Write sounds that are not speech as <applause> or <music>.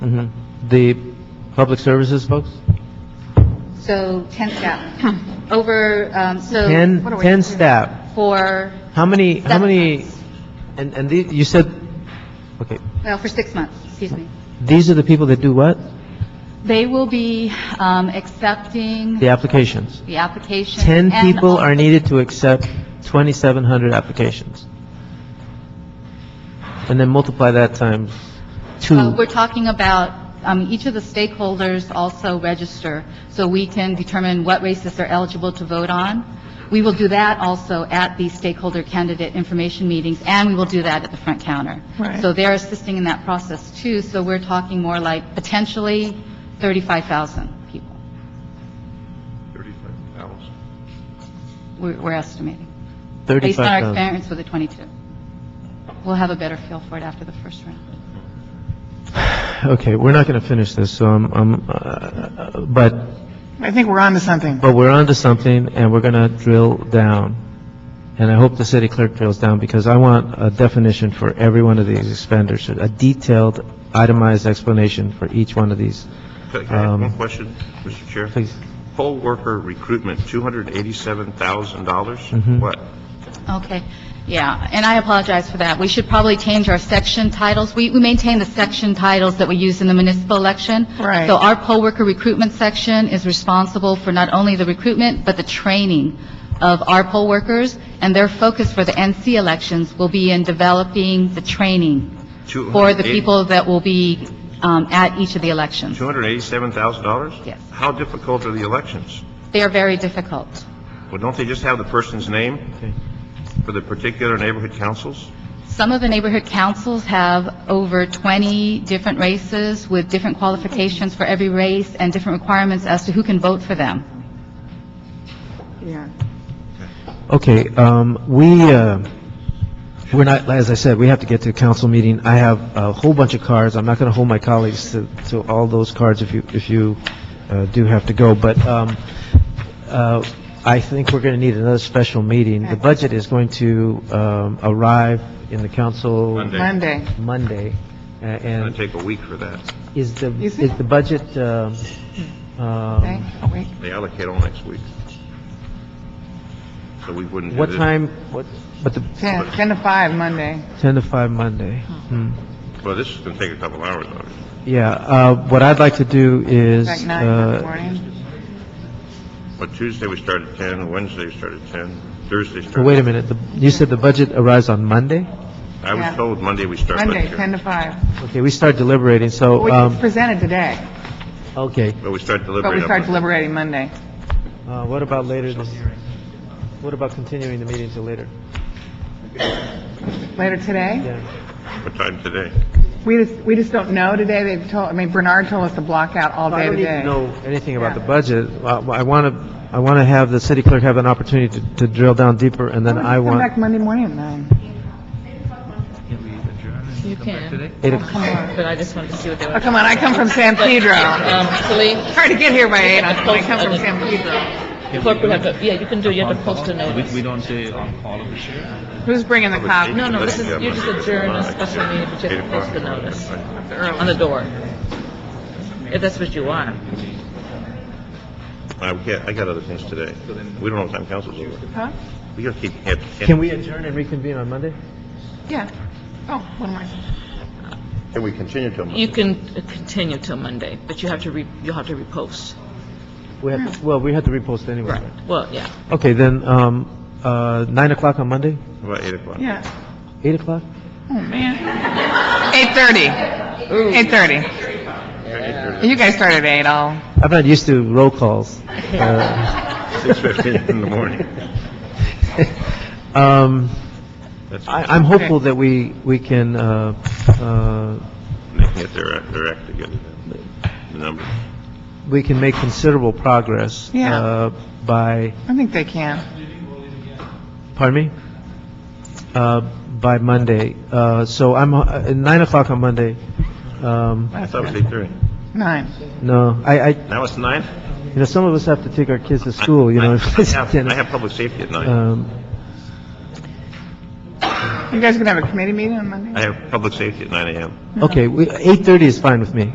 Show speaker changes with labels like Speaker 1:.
Speaker 1: Mhm. The public services folks?
Speaker 2: So 10 staff, over, um, so.
Speaker 1: 10,
Speaker 2: What are we-
Speaker 1: 10 staff.
Speaker 2: For,
Speaker 1: How many, how
Speaker 2: Seven
Speaker 1: many,
Speaker 2: months.
Speaker 1: and, and the- you said, okay,
Speaker 2: well, for six months, excuse me.
Speaker 1: these are the people that do what?
Speaker 2: Mm-hmm. They will be um, accepting
Speaker 1: The applications.
Speaker 2: the application.
Speaker 1: 10
Speaker 2: and
Speaker 1: people
Speaker 2: also-
Speaker 1: are needed to accept 2,700 applications. And then multiply that times
Speaker 2: Uh,
Speaker 1: two.
Speaker 2: We're talking about, um, each of the stakeholders also register, so we can determine what races they're eligible to vote on. We will do that also at the stakeholder candidate information meetings, and we will do that at the front counter.
Speaker 3: Right.
Speaker 2: So they're assisting in that process too, so we're talking more like potentially 35,000 people,
Speaker 4: 35,000.
Speaker 2: we're we're estimating. Based on our
Speaker 1: 35,000.
Speaker 2: experience with the 22. We'll have a better feel for it after the first round.
Speaker 1: Okay, we're not going to finish this, so I'm, I'm, uh, uh, but
Speaker 3: I think we're on to something.
Speaker 1: But we're onto something, and we're going to drill down. And I hope the city clerk drills down, because I want a definition for every one of these expenditures, a detailed, itemized explanation for each one of these.
Speaker 4: Can I have
Speaker 1: Um,
Speaker 4: one question, Mr. Chair?
Speaker 1: Please.
Speaker 4: Poll worker recruitment, $287,000?
Speaker 1: Mhm.
Speaker 4: What?
Speaker 2: Okay, yeah, and I apologize for that. We should probably change our section titles. We, we maintain the section titles that we use in the municipal election.
Speaker 3: Right.
Speaker 2: So our poll worker recruitment section is responsible for not only the recruitment, but the training of our poll workers, and their focus for the NC elections will be in developing the training for the
Speaker 4: 280
Speaker 2: people that will be um, at each of the elections.
Speaker 4: $287,000?
Speaker 2: Yes.
Speaker 4: How difficult are the elections?
Speaker 2: They are very difficult.
Speaker 4: Well, don't they just have the person's name for the particular neighborhood councils?
Speaker 2: Some of the neighborhood councils have over 20 different races with different qualifications for every race and different requirements as to who can vote for them.
Speaker 3: Yeah.
Speaker 1: Okay, um, we, uh, we're not, as I said, we have to get to a council meeting. I have a whole bunch of cards. I'm not going to hold my colleagues to, to all those cards if you, if you uh, do have to go, but um, uh, I think we're going to need another special meeting. The budget is going to um, arrive in the council...
Speaker 4: Monday.
Speaker 3: Monday.
Speaker 1: Monday, a-
Speaker 4: It's going
Speaker 1: and
Speaker 4: to take a week for that.
Speaker 1: is the,
Speaker 3: Is
Speaker 1: is
Speaker 3: it?
Speaker 1: the budget, um,
Speaker 3: Okay,
Speaker 1: um,
Speaker 3: oh, wait.
Speaker 4: They allocate all next week. So we wouldn't do
Speaker 1: what
Speaker 4: this.
Speaker 1: time, what, but the,
Speaker 3: 10, 10 to 5 Monday.
Speaker 1: 10 to 5 Monday? Hmm.
Speaker 4: Well, this is going to take a couple hours, obviously.
Speaker 1: Yeah, uh, what I'd like to do is,
Speaker 3: Like 9 in the
Speaker 1: uh,
Speaker 3: morning.
Speaker 4: But Tuesday, we start at 10, Wednesday, we start at 10, Thursday, start...
Speaker 1: oh, wait a minute, the- you said the budget arrives on Monday?
Speaker 4: I was
Speaker 3: Yeah.
Speaker 4: told Monday we start
Speaker 3: Monday,
Speaker 4: lecture.
Speaker 3: 10 to 5.
Speaker 1: Okay, we start deliberating, so,
Speaker 3: Well, it's
Speaker 1: um,
Speaker 3: presented today,
Speaker 1: okay.
Speaker 4: But we start
Speaker 3: but
Speaker 4: deliberating.
Speaker 3: we
Speaker 4: on
Speaker 3: start
Speaker 4: Monday.
Speaker 3: deliberating Monday.
Speaker 1: Uh, What about later, this- what about continuing the meeting till later?
Speaker 3: Later today?
Speaker 1: Yeah.
Speaker 4: What time today?
Speaker 3: We just, we just don't know today. They've told, I mean, Bernard told us to block out all
Speaker 1: I
Speaker 3: day
Speaker 1: don't need
Speaker 3: today.
Speaker 1: to know anything about the
Speaker 3: Yeah.
Speaker 1: budget. Uh, I want to, I want to have the city clerk have an opportunity to- to drill down deeper, and then I
Speaker 3: Come
Speaker 1: want...
Speaker 3: back Monday morning at 9.
Speaker 5: You can,
Speaker 1: eight o'clock.
Speaker 5: but I just wanted to see what they
Speaker 3: Oh,
Speaker 5: were.
Speaker 3: come on, I come from San Pedro. <laughs>
Speaker 5: Um, Actually,
Speaker 3: Hard to get here by 8, I come from San Pedro.
Speaker 5: clerk would have to, yeah, you can do, you have to post a notice.
Speaker 6: We, we don't say on call of the sheriff.
Speaker 3: Who's bringing the cops?
Speaker 5: No, no, this is, you just adjourn a special meeting, but you have to post a notice on the door, if that's what you want.
Speaker 4: I Uh, can't, I got other things today. We don't know what time council's over.
Speaker 3: Huh?
Speaker 4: We gotta keep, have-
Speaker 1: Can we adjourn and reconvene on Monday?
Speaker 3: Yeah. Oh, one more.
Speaker 4: Can we continue till Monday?
Speaker 5: You can continue till Monday, but you have to re, you'll have to repost.
Speaker 1: We
Speaker 3: Hmm.
Speaker 1: have, well, we had to repost anyway.
Speaker 5: Right, well, yeah.
Speaker 1: Okay, then, um, uh, 9 o'clock on Monday?
Speaker 4: About eight o'clock.
Speaker 3: Yeah.
Speaker 1: 8 o'clock?
Speaker 3: Oh, man. 8:30. 8:30.
Speaker 4: Yeah.
Speaker 3: You guys start at 8, I'll...
Speaker 1: I'm not used to roll
Speaker 4: <laughs>
Speaker 1: calls. Uh, <laughs>
Speaker 4: Six fifteen in the morning.
Speaker 1: um,
Speaker 4: That's
Speaker 1: I- I'm hopeful that we we can, uh, uh,
Speaker 4: They can get their, act- their act together, the numbers.
Speaker 1: we can make considerable progress.
Speaker 3: Yeah.
Speaker 1: uh, By,
Speaker 3: I think they can.
Speaker 1: pardon me? Uh, By Monday. Uh, So I'm, uh, at 9 o'clock on Monday. Um,
Speaker 4: I thought it was eight thirty.
Speaker 3: Nine.
Speaker 1: No, I, I- you
Speaker 4: Now it's nine?
Speaker 1: know, some of us have to take our kids to school, you know.
Speaker 4: I
Speaker 1: if <laughs> it's
Speaker 4: have,
Speaker 1: ten-
Speaker 4: I have public safety at nine.
Speaker 1: um,
Speaker 3: You guys gonna have a committee meeting on Monday?
Speaker 4: I have public safety at nine AM.
Speaker 1: Okay, we- 8:30 is fine with me.